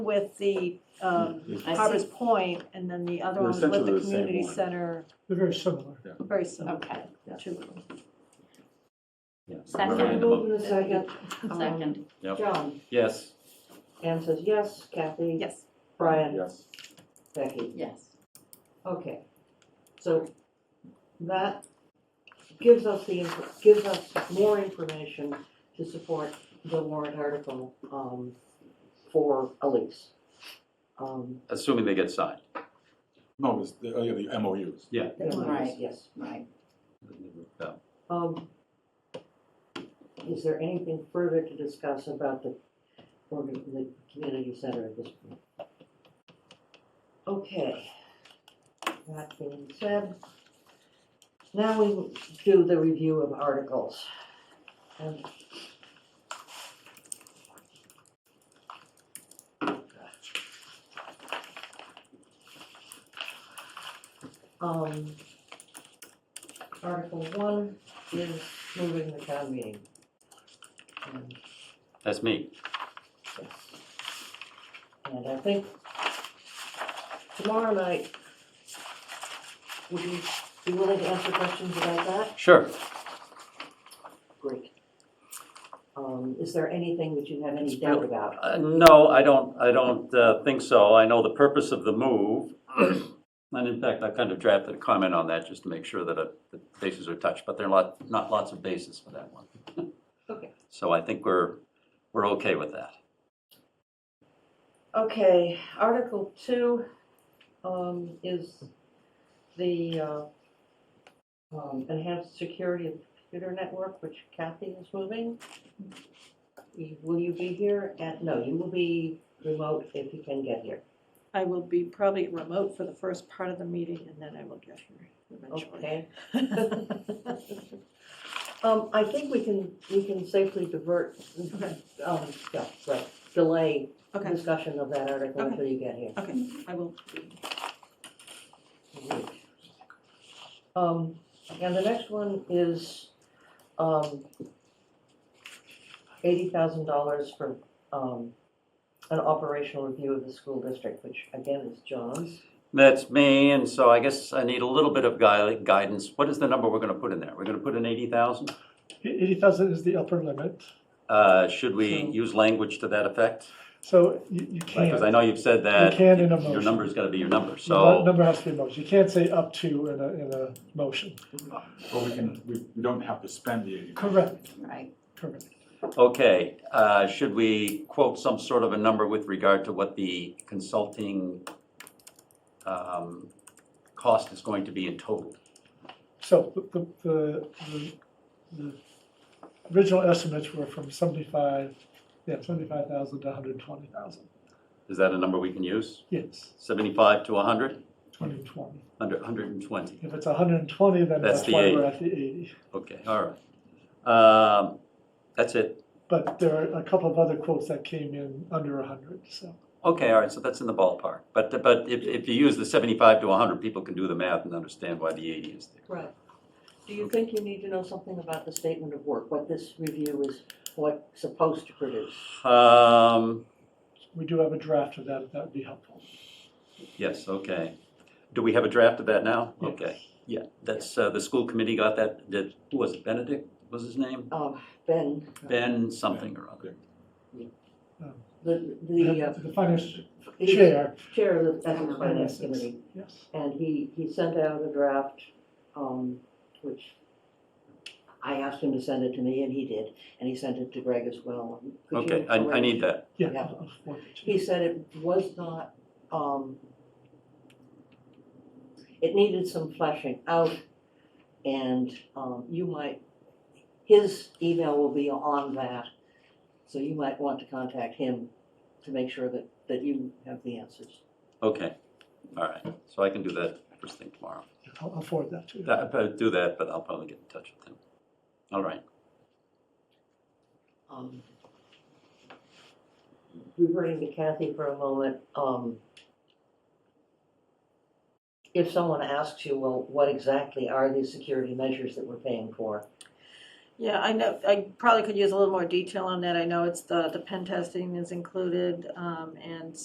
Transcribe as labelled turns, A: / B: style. A: with the um,
B: They're
C: I
A: Harbor's
C: see.
A: Point, and then the other
B: They're
A: one was with
B: Hmm. essentially
A: the
B: the same
A: community
B: one.
A: center,
D: very similar.
A: very similar.
C: Okay.
A: the two of them.
C: Second.
E: Moved in a second. Um,
C: Second.
F: Yep.
E: John,
F: Yes.
E: Anne says yes, Kathy?
A: Yes,
E: Brian,
B: Yes.
E: Becky,
C: Yes.
E: okay. So that gives us the, inf- gives us more information to support the warrant article, um, for Elise. Um,
F: Assuming they get signed.
B: No, it's the, oh, yeah, the MOUs.
C: Right.
E: Yes.
C: Right.
F: No.
E: Um, is there anything further to discuss about the, organ- the community center at this point? Okay, that being said, now we do the review of articles. And Um, Article one is moving the town meeting. And
F: That's me.
E: and I think tomorrow night, would you be willing to answer questions about that?
F: Sure.
E: Great. Um, is there anything that you have any
F: It's
E: doubt
F: real-
E: about?
F: Uh, No, I don't, I don't uh, think so. I know the purpose of the move. And in fact, I kind of drafted a comment on that just to make sure that uh, the bases are touched, but there are lot, not lots of bases for that one.
E: Okay.
F: So I think we're, we're okay with that.
E: Okay, Article two, um, is the, uh, um, enhanced security of computer network, which Kathy is moving. You- Will you be here at, no, you will be remote if you can get here,
A: I will be probably remote for the first part of the meeting, and then I will get here eventually.
E: okay? Um, I think we can, we can safely divert,
A: Okay.
E: um, yeah, right, delay
A: Okay,
E: discussion of that article
A: Okay.
E: until you get here.
A: okay, I will.
E: Um, and the next one is, um, eighty thousand dollars for, um, an operational review of the school district, which again is John's.
F: That's me, and so I guess I need a little bit of gui- guidance. What is the number we're going to put in there? We're going to put in 80,000?
D: Eighty thousand is the upper limit,
F: Uh, Should we
D: So-
F: use language to that effect?
D: so you, you
F: Because I
D: can't,
F: know you've said that.
D: can in a
F: Your
D: motion.
F: number's got to be your number,
D: the
F: so,
D: number has to be a motion, you can't say up to in a, in a motion.
B: But we can, we, we don't have to spend the eighty.
D: Correct,
C: Right.
D: correct.
F: okay. uh, Should we quote some sort of a number with regard to what the consulting um, cost is going to be in total?
D: So the- the, the, the, the original estimates were from seventy-five, yeah, seventy-five thousand to hundred and twenty thousand,
F: Is that a number we can use?
D: yes,
F: 75 to 100?
D: twenty twenty.
F: Under 120?
D: If it's hundred and twenty, then
F: That's
D: that's
F: the
D: why
F: 80.
D: we're at the eighty.
F: Okay, all right. Um, That's it.
D: But there are a couple of other quotes that came in under hundred, so.
F: Okay, all right, so that's in the ballpark. But, but if, if you use the 75 to 100, people can do the math and understand why the 80 is there.
E: Right. Do you think you need to know something about the statement of work, what this review is, what's supposed to produce?
F: Um,
D: We do have a draft of that, if that would be helpful.
F: yes, okay. Do we have a draft of that now?
D: Yes.
F: Okay, yeah, that's, uh, the school committee got that, that, who was it, Benedict was his name?
E: Uh,
D: Um,
E: Ben,
F: Ben something or other.
E: the, the, uh,
D: The the finance
E: the
D: chair,
E: Chair of the Ethics Finance
D: Finance.
E: Committee.
D: yes,
E: And he, he sent out a draft, um, which I asked him to send it to me and he did, and he sent it to Greg as well. Could you
F: Okay, I, I
E: arrange-
F: need that.
D: yeah.
E: Yeah.
D: of course.
E: He said it was not, um, it needed some fleshing out and, um, you might, his email will be on that. So you might want to contact him to make sure that, that you have the answers.
F: Okay, all right, so I can do that first thing tomorrow.
D: I'll I'll forward that to you.
F: That- I'll do that, but I'll probably get in touch with him. All right,
E: um, reverting to Kathy for a moment, um, if someone asks you, well, what exactly are these security measures that we're paying for?
A: Yeah, I know, I probably could use a little more detail on that. I know it's the, the pen testing is included, um, and